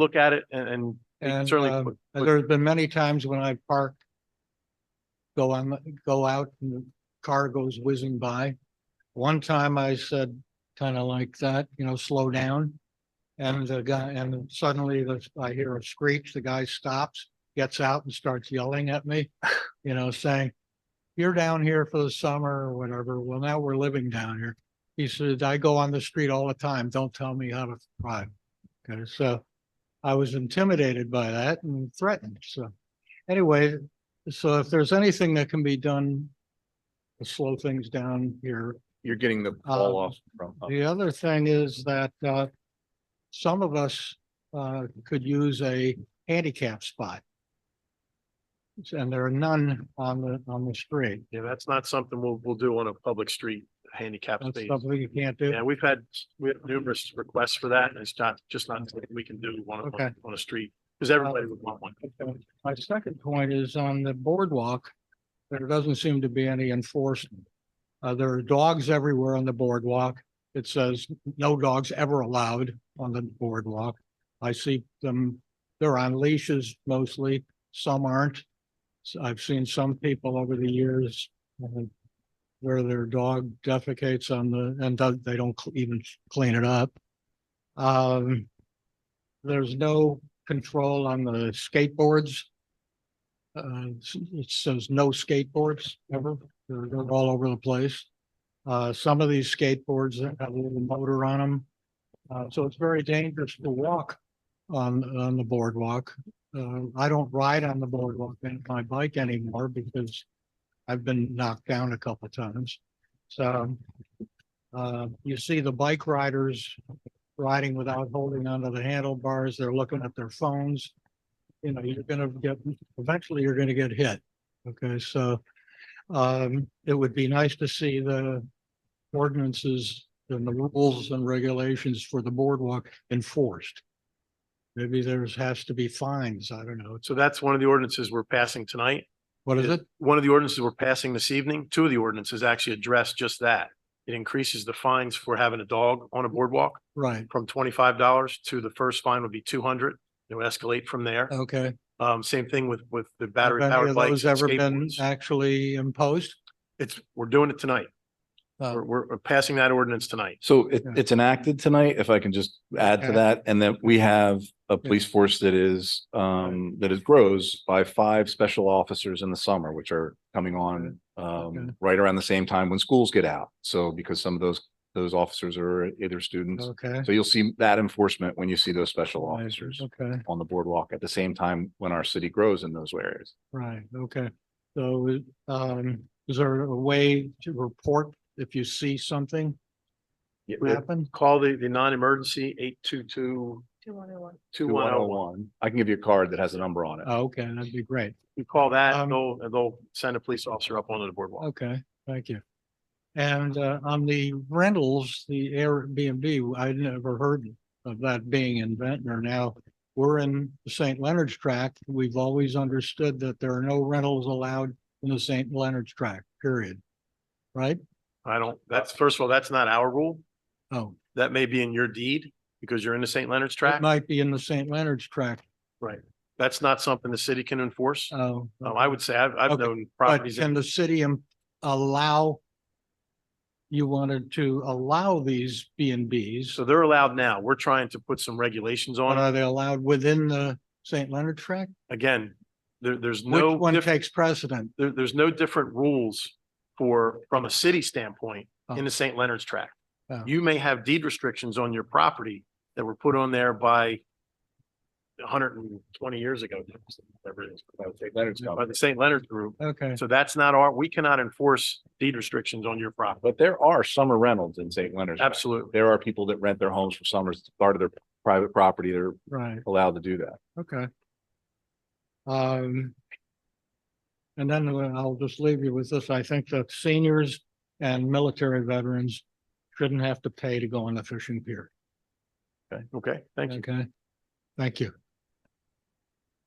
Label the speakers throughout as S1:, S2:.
S1: look at it and, and we can
S2: And,
S1: certainly,
S2: um,
S1: put-
S2: And
S1: put-
S2: there's been many times when I park. Go on, the- go out and the car goes whizzing by. One time I said, kind of like that, you know, slow down. And the guy, and suddenly the- I hear a screech, the guy stops, gets out and starts yelling at me, you know, saying. You're down here for the summer or whatever. Well, now we're living down here. He said, I go on the street all the time. Don't tell me how to drive. Okay, so. I was intimidated by that and threatened, so. Anyway, so if there's anything that can be done to slow things down here,
S1: you're getting
S2: um,
S1: the ball off from. uh,
S2: the other thing is that, uh, some of us, uh, could use a handicap spot. And there are none on the, on the street.
S1: Yeah, that's not something we'll, we'll do on a public street handicap
S2: That's
S1: space.
S2: something you can't do.
S1: Yeah, we've had, we have numerous requests for that and it's not, just not something we can do one on,
S2: Okay.
S1: a- on a street. Cause everybody would want one.
S2: My second point is on the boardwalk, there doesn't seem to be any enforcement. Uh, there are dogs everywhere on the boardwalk. It says no dogs ever allowed on the boardwalk. I see them, they're on leashes mostly, some aren't. So I've seen some people over the years uh, where their dog defecates on the, and don't- they don't cl- even clean it up. Um, there's no control on the skateboards. Uh, s- it says no skateboards ever, they're they're all over the place. Uh, some of these skateboards that have a little motor on them. Uh, so it's very dangerous to walk on, on the boardwalk. Uh, I don't ride on the boardwalk and my bike anymore because I've been knocked down a couple times. So, uh, you see the bike riders riding without holding onto the handlebars, they're looking at their phones. You know, you're gonna get, eventually you're gonna get hit. Okay, so um, it would be nice to see the ordinances and the rules and regulations for the boardwalk enforced. Maybe there's, has to be fines, I don't know. It's-
S1: So that's one of the ordinances we're passing tonight.
S2: What is it?
S1: One of the ordinances we're passing this evening, two of the ordinances actually address just that. It increases the fines for having a dog on a boardwalk
S2: Right,
S1: from twenty-five dollars to the first fine would be two hundred. It would escalate from there.
S2: okay.
S1: Um, same thing with, with the
S2: Have
S1: battery
S2: any
S1: powered
S2: of
S1: bikes.
S2: those
S1: and
S2: ever been
S1: skateboards.
S2: actually imposed?
S1: It's, we're doing it tonight.
S2: Uh,
S1: We're, we're we're passing that ordinance tonight.
S3: So it,
S2: Yeah.
S3: it's enacted tonight, if I can just add to
S2: Okay.
S3: that, and that we have a police force that is, um, that is grows by five special officers in the summer, which are coming on,
S2: Okay.
S3: um, right around the same time when schools get out. So because some of those, those officers are either students.
S2: Okay.
S3: So you'll see that enforcement when you see those special
S2: Right,
S3: officers
S2: Okay.
S3: on the boardwalk at the same time when our city grows in those areas.
S2: Right, okay. So, um, is there a way to report if you see something
S3: Yeah.
S2: happen?
S1: Call the, the non-emergency eight two two
S4: Two one oh one.
S1: two
S3: Two one
S1: one
S3: oh
S1: oh one.
S3: one. I can give you a card that has a number on it.
S2: Oh, Okay, that'd be great.
S1: You call that,
S2: Um,
S1: and they'll, and they'll send a police officer up onto the boardwalk.
S2: Okay, thank you. And, uh, on the rentals, the Airbnb, I'd never heard of that being in Ventnor. Now, we're in the St. Leonard's Tract. We've always understood that there are no rentals allowed in the St. Leonard's Tract, period. Right?
S1: I don't, that's, first of all, that's not our rule.
S2: Oh,
S1: That may be in your deed because you're in the St. Leonard's
S2: it
S1: tract.
S2: might be in the St. Leonard's Tract.
S1: That's not something the city can enforce.
S2: Oh.
S1: Um, I would say I've, I've
S2: Okay,
S1: known
S2: But
S1: properties. that-
S2: can the city im- allow? You wanted to allow these B and Bs,
S1: So they're allowed now. We're trying to put some regulations
S2: but
S1: on it.
S2: are they allowed within the St. Leonard tract?
S1: Again, there, there's
S2: Which
S1: no,
S2: one
S1: diff-
S2: takes precedent?
S1: there, there's no different rules for, from a city standpoint in the St. Leonard's tract.
S2: Oh.
S1: You may have deed restrictions on your property that were put on there by hundred and twenty years ago. whatever it is,
S3: Leonard's
S1: By the St. Leonard's group.
S2: Okay,
S1: So that's not our, we cannot enforce deed restrictions on your property.
S3: But there are summer rentals in St. Leonard's.
S1: Absolutely.
S3: there are people that rent their homes for summers, it's part of their private property, they're
S2: right,
S3: allowed to do that.
S2: okay. Um. And then I'll just leave you with this. I think that seniors and military veterans shouldn't have to pay to go on the fishing pier.
S1: Okay, thank you.
S2: Okay? Thank you.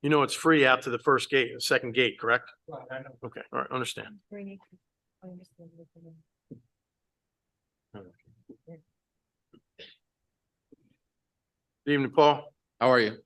S1: You know, it's free out to the first gate, second gate, correct? Okay, all right, understand.
S4: Three. I understand what you mean.
S1: Good evening, Paul.
S5: How are you?